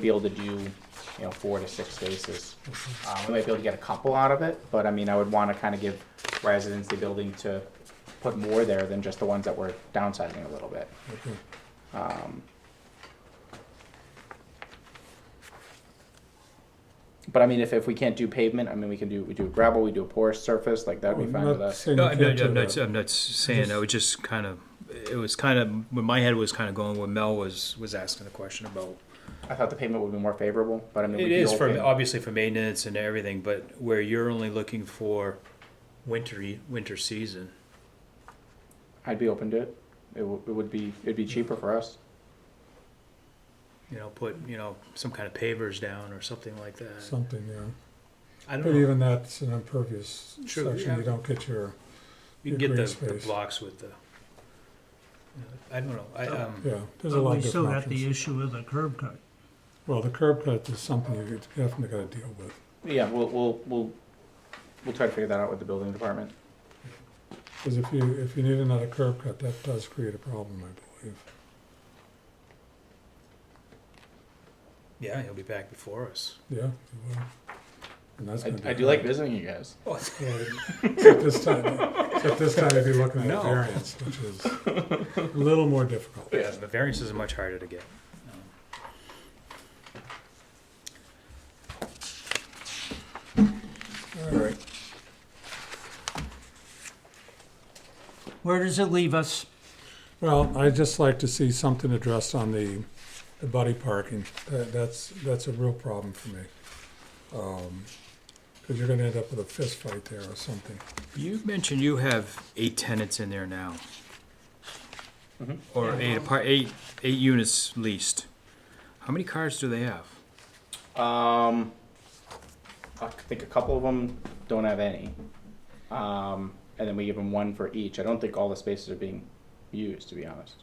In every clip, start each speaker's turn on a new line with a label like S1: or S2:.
S1: be able to do, you know, four to six spaces. Uh, we might be able to get a couple out of it, but I mean, I would wanna kinda give residents the ability to put more there than just the ones that we're downsizing a little bit.
S2: Hmm.
S1: Um, But I mean, if, if we can't do pavement, I mean, we can do, we do gravel, we do a porous surface, like that'd be
S2: I'm
S1: fine
S2: not
S1: with us.
S2: saying
S3: No,
S2: you
S3: I'm
S2: can't
S3: not,
S2: do
S3: I'm not,
S2: that.
S3: I'm not saying, I was just kind of, it was kind of, when my head was kind of going where Mel was, was asking the question about.
S1: I thought the pavement would be more favorable, but I mean. we
S3: It
S1: could
S3: is
S1: do
S3: for,
S1: open-
S3: obviously for maintenance and everything, but where you're only looking for wintery, winter season.
S1: I'd be open to it. It would, it would be, it'd be cheaper for us.
S3: You know, put, you know, some kind of pavers down or something like that.
S2: Something, yeah.
S3: I
S2: But
S3: don't know,
S2: even that's an impervious
S3: True,
S2: section,
S3: yeah.
S2: you don't get your,
S3: you can get the,
S2: green
S3: the
S2: space.
S3: blocks with the, I don't know, I, um,
S2: yeah, there's a lot of
S4: We still
S2: different
S4: got the
S2: options.
S4: issue of the curb cut.
S2: Well, the curb cut is something you definitely gotta deal with.
S1: Yeah, we'll, we'll, we'll, we'll try to figure that out with the building department.
S2: Because if you, if you need another curb cut, that does create a problem, I believe.
S3: yeah, he'll be back before us.
S2: Yeah, you will. And that's gonna be.
S1: I, I do like
S2: hard.
S1: visiting you guys.
S3: Oh,
S2: Well, Except this time, except this time you'd be looking at
S3: No.
S2: a variance, which is a little more difficult.
S3: Yeah, the variances are much harder to get.
S2: All right,
S4: Where does it leave us?
S2: well, I'd just like to see something addressed on the, the buddy parking. That, that's, that's a real problem for me. Because you're gonna end up with a fist fight there or something.
S3: You mentioned you have eight tenants in there now. Or eight apart, eight, eight units leased. How many cars do they have?
S1: Um, I think a couple of them don't have any. Um, and then we give them one for each. I don't think all the spaces are being used, to be honest.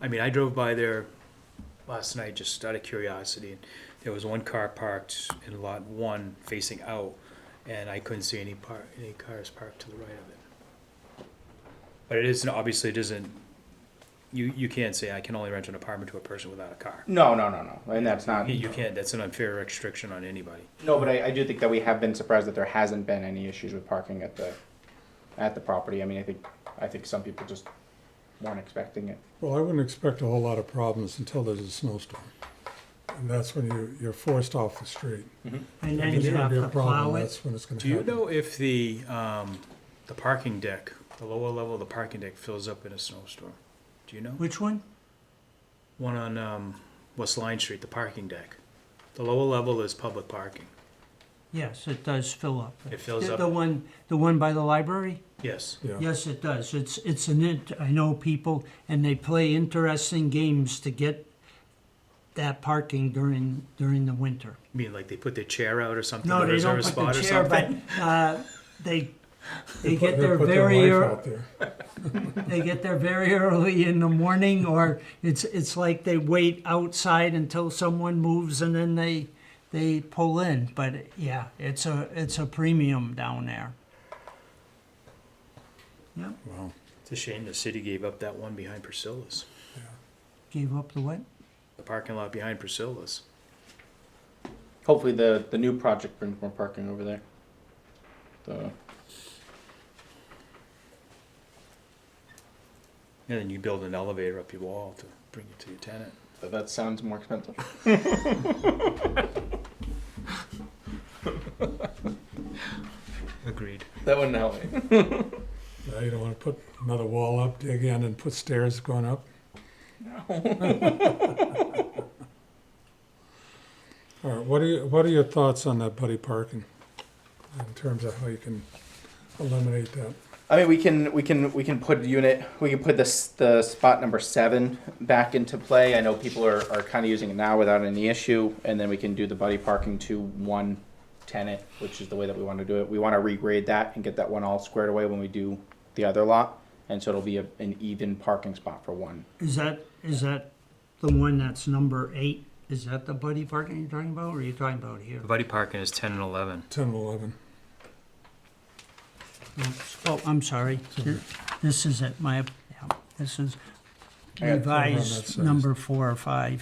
S3: I mean, I drove by there last night just out of curiosity. There was one car parked in lot one facing out, and I couldn't see any par, any cars parked to the right of it. But it isn't, obviously it isn't, you, you can't say I can only rent an apartment to a person without a car.
S1: No, no, no, no. And that's not.
S3: You- You can't, that's an unfair restriction on anybody.
S1: No, but I, I do think that we have been surprised that there hasn't been any issues with parking at the, at the property. I mean, I think, I think some people just weren't expecting it.
S2: Well, I wouldn't expect a whole lot of problems until there's a snowstorm. And that's when you, you're forced off the street.
S4: And
S2: If
S4: then
S2: there's
S4: you
S2: gonna
S4: have
S2: be a
S4: to plow
S2: problem,
S4: it.
S2: That's when it's gonna
S3: Do you
S2: happen.
S3: know if the, um, the parking deck, the lower level of the parking deck fills up in a snowstorm? Do you know?
S4: Which one?
S3: One on, um, West Line Street, the parking deck. The lower level is public parking.
S4: Yes, it does fill up.
S3: It fills
S4: The-
S3: up.
S4: The one, the one by the library?
S3: Yes.
S2: Yeah,
S4: Yes, it does. It's, it's an, int- I know people, and they play interesting games to get that parking during, during the winter.
S3: You mean like they put their chair out or something?
S4: No,
S3: to
S4: they
S3: reserve
S4: don't
S3: a
S4: put
S3: spot
S4: the
S3: or
S4: chair, but,
S3: something?
S4: uh, they, they
S2: Put-
S4: get there
S2: put
S4: very,
S2: wife
S4: ear-
S2: out there.
S4: they get there very early in the morning or it's it's like they wait outside until someone moves and then they they pull in but yeah it's a it's a premium down there yeah
S2: Wow.
S3: It's a shame the city gave up that one behind Priscilla's,
S4: gave up the what
S3: the parking lot behind Priscilla's.
S1: Hopefully the, the new project brings more parking over there. The,
S3: And then you build an elevator up your wall to bring it to your tenant.
S1: that- that sounds more expensive.
S3: Agreed.
S1: That wouldn't help me.
S2: Now Uh, you don't wanna put another wall up, dig in and put stairs going up? No. All right, what are you, what are your thoughts on that buddy parking? In terms of how you can eliminate that?
S1: I mean, we can we can we can put unit we can put this the spot number seven back into play. I know people are, are kind of using it now without any issue, and then we can do the buddy parking to one tenant, which is the way that we want to do it. We want to regrade that and get that one all squared away when we do the other lot, and so it'll be a, an even parking spot for one.
S4: is that is that the one that's number eight is that the buddy parking you're talking about or are you talking about here
S3: Buddy parking is ten and eleven.
S2: Ten and eleven.
S4: Oh, I'm sorry. This is it, my, yeah, this is,
S1: I got-
S2: on that
S4: revised
S2: size.
S4: number four or five